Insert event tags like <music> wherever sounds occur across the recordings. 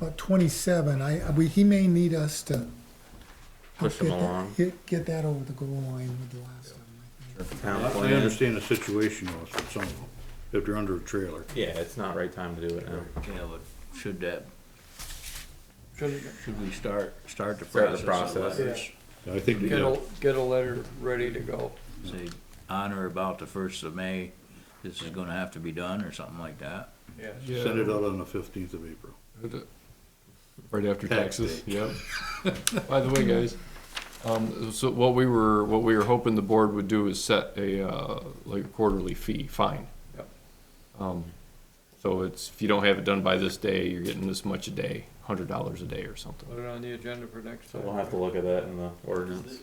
about twenty-seven, I, we, he may need us to. Push him get that- along. Get, get that over the goal line with the last one. Town I plan. understand the situation was for some of them, if they're under a trailer. Yeah, it's not right time to do it now. Yeah, but should that, should we start, start the Start process? the of process. letters? I think, Get yeah, a, get a letter ready to go. Say, on or about the first of May, this is gonna have to be done, or something like that. Yes. send it out on the fifteenth of April. Right after Tax taxes, yep. By the way, guys, um, so what we were, what we were hoping the board would do is set a, uh, like a quarterly fee, fine. Yep. Um, so it's, if you don't have it done by this day, you're getting this much a day, hundred dollars a day or something. Put it on the agenda for next So time. we'll have to look at that in the ordinance.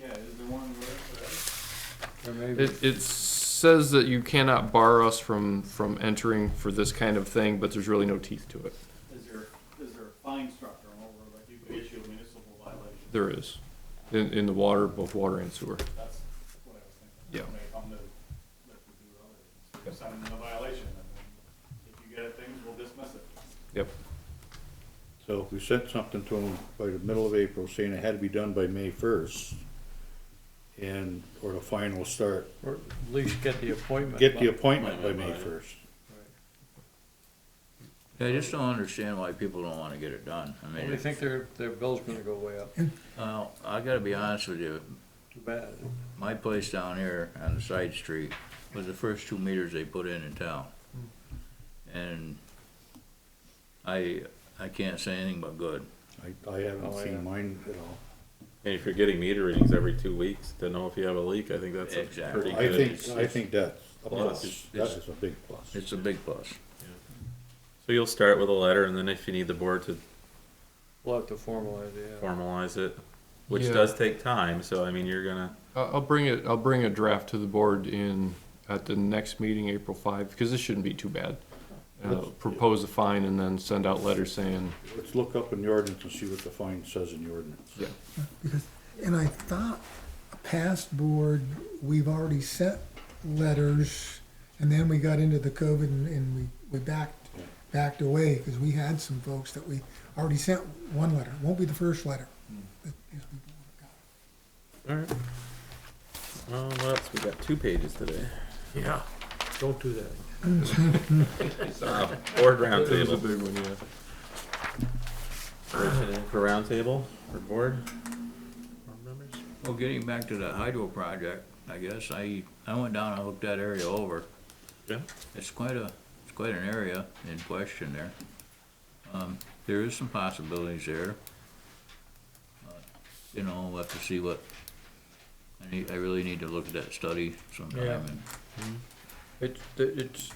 Or maybe, It, it says that you cannot bar us from, from entering for this kind of thing, but there's really no teeth to it. Is there, is there a fine structure on over, like you could issue a municipal violation? There is, in, in the water, both water and sewer. That's what I was thinking. Yeah. Like, on the, like we do earlier, Yep. send them a violation, and then if you get it, things, we'll dismiss it. Yep. So if we sent something to them by the middle of April saying it had to be done by May first, and, or the fine will start, or at least get the appointment. get the appointment by May first. I just don't understand why people don't wanna get it done, I Well, They mean, think their, their bill's gonna go way up. well, I gotta be honest with you, Too bad. my place down here on the side street was the first two meters they put in in town. And I, I can't say anything but good. I, I haven't Oh, yeah. seen mine at all. And if you're getting meter readings every two weeks to know if you have a leak, I think that's a Exactly. pretty I good. think, I think that's a Plus, plus, that it's- is a big plus. It's a big plus. So you'll start with a letter and then if you need the board to We'll have to formalize it, yeah. formalize it, which Yeah. does take time, so I mean, you're gonna, I- I'll bring it, I'll bring a draft to the board in, at the next meeting, April five, because this shouldn't be too bad. Uh, Let's- propose a fine and then send out letters saying, Let's look up in the ordinance and see what the fine says in the ordinance. Yeah. And I thought, a past board, we've already sent letters, and then we got into the COVID and, and we, we backed, backed away, because we had some folks that we already sent one letter, won't be the first letter. that these people got. alright. Uh, what else? We got two pages today. Yeah, don't do that. Uh, <laughs> Board It was a <laughs> roundtable. big one, yeah. Motion For roundtable, for board. Board members? Well, getting back to that hydro project, I guess, I, I went down and looked that area over. Yeah. It's quite a, it's quite an area in question there. Um, there is some possibilities there. Uh, You know, we'll have to see what, I need, I really need to look at that study sometime Yeah. and It's, it's,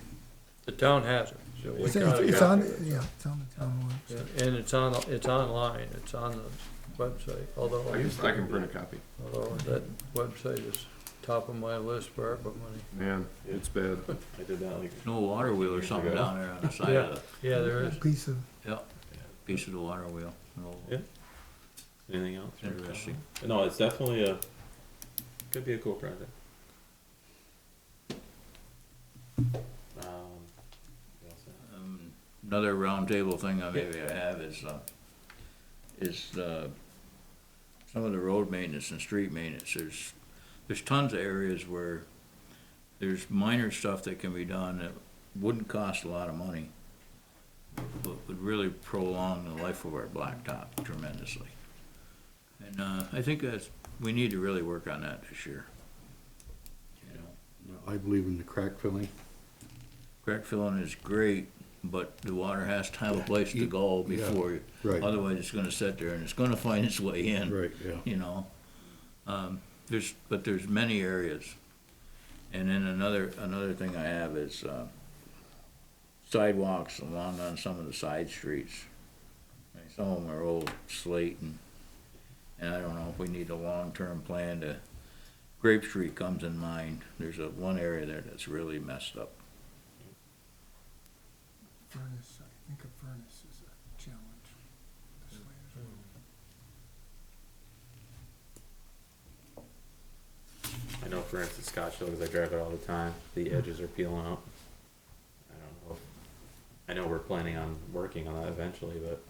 the town has it. so we It's, gotta it's go. on, yeah, it's on the town warrant. Yeah, And it's on, it's online, it's on the website, although, I can print a copy. although that website is top of my list for ARPA money. Man, it's bad. I did that like no water wheel or something ago. down there on the side of the Yeah, there is. Piece of, <laughs> piece of the water wheel. an old- Yeah. anything else. Interesting. No, it's definitely a, could be a cool project. Um, what else? Um, Another roundtable thing I maybe I have is, uh, is, uh, some of the road maintenance and street maintenance, there's, there's tons of areas where there's minor stuff that can be done that wouldn't cost a lot of money, but would really prolong the life of our blacktop tremendously. And, uh, I think that's, we need to really work on that this year. You know, I believe in the crack filling. crack filling is great, but the water has to have a place to go before you. Right. Otherwise, it's gonna sit there and it's gonna <laughs> find its way in. Right, yeah. You know, um, there's, but there's many areas. And then another, another thing I have is, uh, sidewalks along on some of the side streets. I mean, Some of them are old slate and, and I don't know if we need a long-term plan to, Grape Street comes in mind. There's a, one area there that's really messed up. furnace, I think a furnace is a challenge. This way is- I know for instance Scottsdale, because I drive it all the time, the edges are peeling out. I don't know. if- I know we're planning on working on that eventually, but